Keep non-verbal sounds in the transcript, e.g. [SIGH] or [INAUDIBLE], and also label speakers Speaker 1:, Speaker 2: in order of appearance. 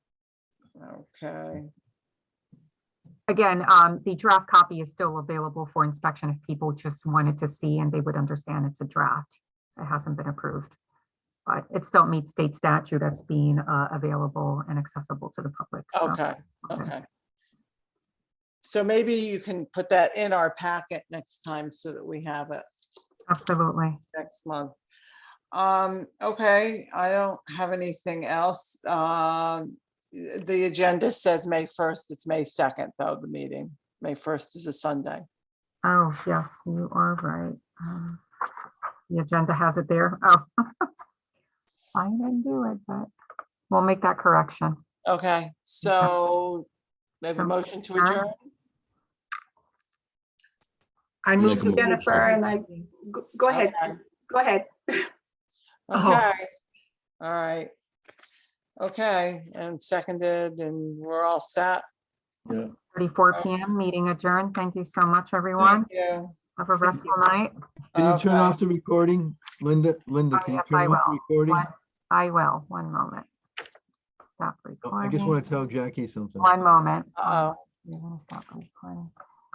Speaker 1: Okay,
Speaker 2: Again, um, the draft copy is still available for inspection if people just wanted to see and they would understand it's a draft. It hasn't been approved. But it still meets state statute that's being, uh, available and accessible to the public. so,
Speaker 1: okay, okay. So maybe you can put that in our packet next time so that we have it
Speaker 2: Absolutely.
Speaker 1: next month. Um, okay, I don't have anything else. Um, the agenda says May first, it's May second, though, the meeting. May first is a Sunday.
Speaker 2: Oh, yes, you are right. Um, The agenda has it there. Oh. [LAUGHS] I didn't do it, but we'll make that correction.
Speaker 1: Okay, so we have a
Speaker 2: So-
Speaker 1: motion to adjourn.
Speaker 3: I
Speaker 4: Make
Speaker 3: move
Speaker 4: a
Speaker 3: the.
Speaker 4: motion.
Speaker 5: Jennifer and I, go- go ahead,
Speaker 1: Okay.
Speaker 5: go ahead.
Speaker 3: Oh.
Speaker 1: Okay, all right. Okay, and seconded and we're all set.
Speaker 2: Thirty-four PM, meeting adjourned. Thank you so much, everyone.
Speaker 1: Oh. Thank you.
Speaker 2: Have a restful night.
Speaker 6: Can you turn
Speaker 1: Okay.
Speaker 6: off the recording? Linda, Linda,
Speaker 2: Oh,
Speaker 6: can you
Speaker 2: yes, I
Speaker 6: turn off the recording?
Speaker 2: One- I will, one moment. Stop
Speaker 6: Oh, I just
Speaker 2: recording.
Speaker 6: want to tell Jackie something.
Speaker 2: One moment.
Speaker 1: Uh-oh.
Speaker 2: You're gonna stop recording.